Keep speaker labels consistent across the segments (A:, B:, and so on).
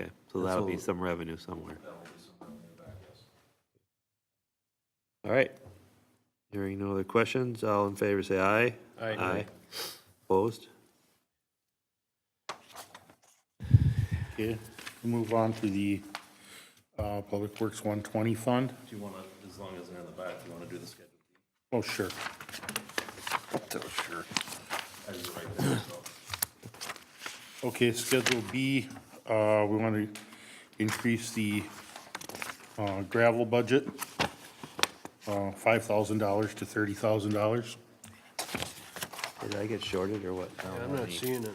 A: So that'll be
B: Absolutely.
A: some revenue somewhere. All right. Hearing no other questions, all in favor, say aye.
C: Aye.
A: Opposed?
D: Okay, we'll move on to the uh, Public Works 120 Fund.
C: Do you want to, as long as they're in the back, you want to do the schedule?
D: Oh, sure.
C: I was right there, so.
D: Okay, Schedule B, uh, we want to increase the uh, gravel budget, uh, $5,000 to $30,000.
A: Did I get shorted or what?
E: I'm not seeing it.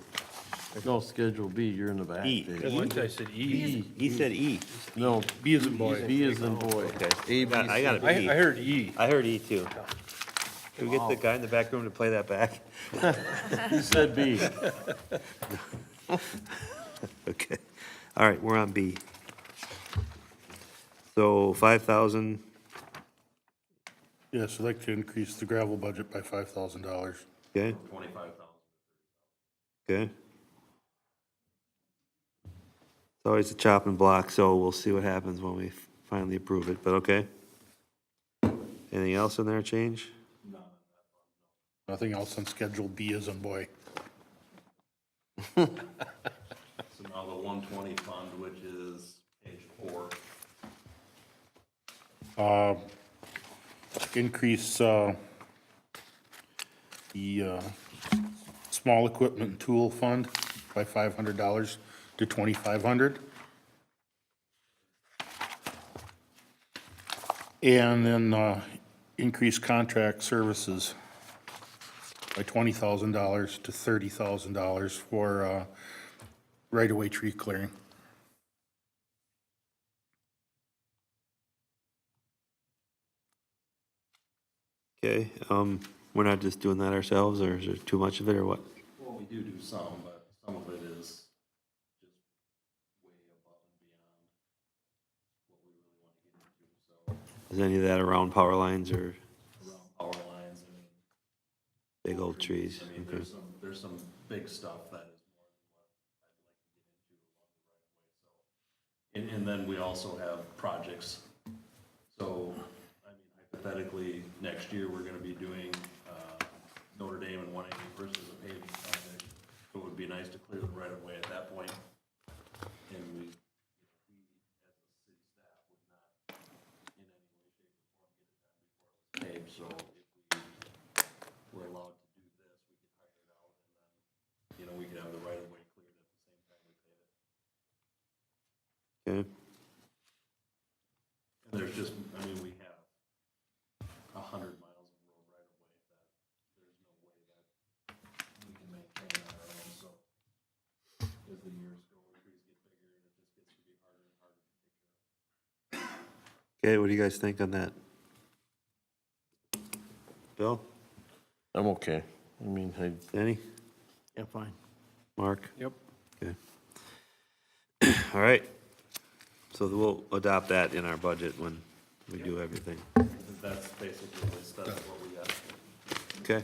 B: No, Schedule B, you're in the back.
A: E.
B: Dave.
C: One guy said E.
A: He said E.
B: No,
D: B is in boy.
B: B is in boy.
A: Okay.
B: A, B,
A: I got
B: C.
A: it.
C: I, I heard E.
A: I heard E too. Can we get the guy in the back room to play that back?
B: He said B.
A: Okay, all right, we're on B. So 5,000,
D: Yes, I'd like to increase the gravel budget by $5,000.
A: okay,
C: Twenty-five thousand.
A: okay. It's always a chopping block, so we'll see what happens when we finally approve it, but okay. Anything else in there change?
D: Nothing else on Schedule B is in boy.
C: So now the one twenty fund, which is page four.
D: Uh, Increase uh, the uh, small equipment and tool fund by $500 to $2,500. And then uh, increase contract services by $20,000 to $30,000 for uh, right-of-way tree clearing.
A: Okay, um, we're not just doing that ourselves, or is there too much of it, or what?
C: Well, we do do some, but some of it is
A: Is any of that around power lines or
C: power lines. I mean,
A: big old trees?
C: I mean,
A: Okay.
C: there's some, there's some big stuff that is more than what I'd like to get into along the right of way, so. And, and then we also have projects. So, I mean, hypothetically, next year, we're gonna be doing, uh, Notre Dame and one eighty versus a paving project. It would be nice to clear the right of way at that point. And we, paved, so if we were allowed to do this, we could hire it out and then, you know, we could have the right of way cleared at the same time we pave it.
A: Okay,
C: And there's just, I mean, we have a hundred miles of road right of way that there's no way that we can maintain on our own, so as the years go, the trees get bigger and it just gets to be harder and harder to take care of.
A: Okay. what do you guys think on that? Bill,
B: I'm okay. I mean, I,
A: Danny?
E: Yeah, fine.
A: Mark?
E: Yep.
A: Okay. All right. So we'll adopt that in our budget when we do everything.
C: And That's basically, the list. that's what we got.
A: Okay.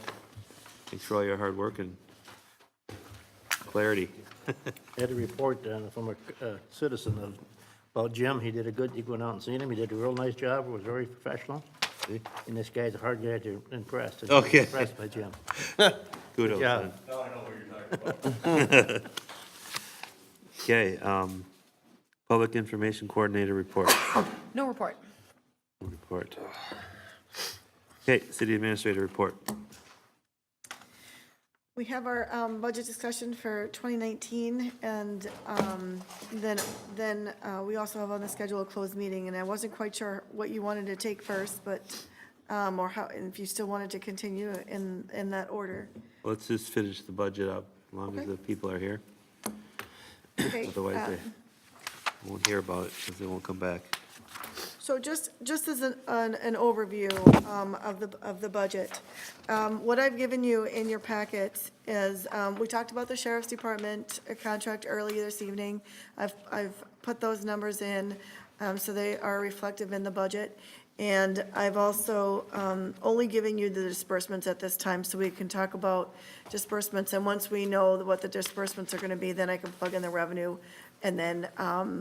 A: Thanks for all your hard work and clarity.
E: Had a report uh, from a uh, citizen of, about Jim, he did a good, he went out and seen him, he did a real nice job, was very professional.
A: See?
E: And this guy's a hard guy to impress. and
A: Okay.
E: Impressed by Jim.
A: Kudos.
E: Yeah.
A: man. Okay, um, Public Information Coordinator report,
F: No report.
A: report. Okay, City Administrator report.
G: We have our um, budget discussion for 2019, and um, then, then uh, we also have on the schedule a closed meeting, and I wasn't quite sure what you wanted to take first, but, um, or how, and if you still wanted to continue in, in that order.
A: Let's just finish the budget up, as long as the people are here.
G: Okay, uh,
A: Otherwise, they won't hear about it, because they won't come back.
G: So just, just as an, an an overview um, of the, of the budget, um, what I've given you in your packet is, um, we talked about the sheriff's department uh, contract earlier this evening. I've, I've put those numbers in, um, so they are reflective in the budget. And I've also um, only giving you the disbursements at this time, so we can talk about disbursements. And once we know what the disbursements are going to be, then I can plug in the revenue, and then um,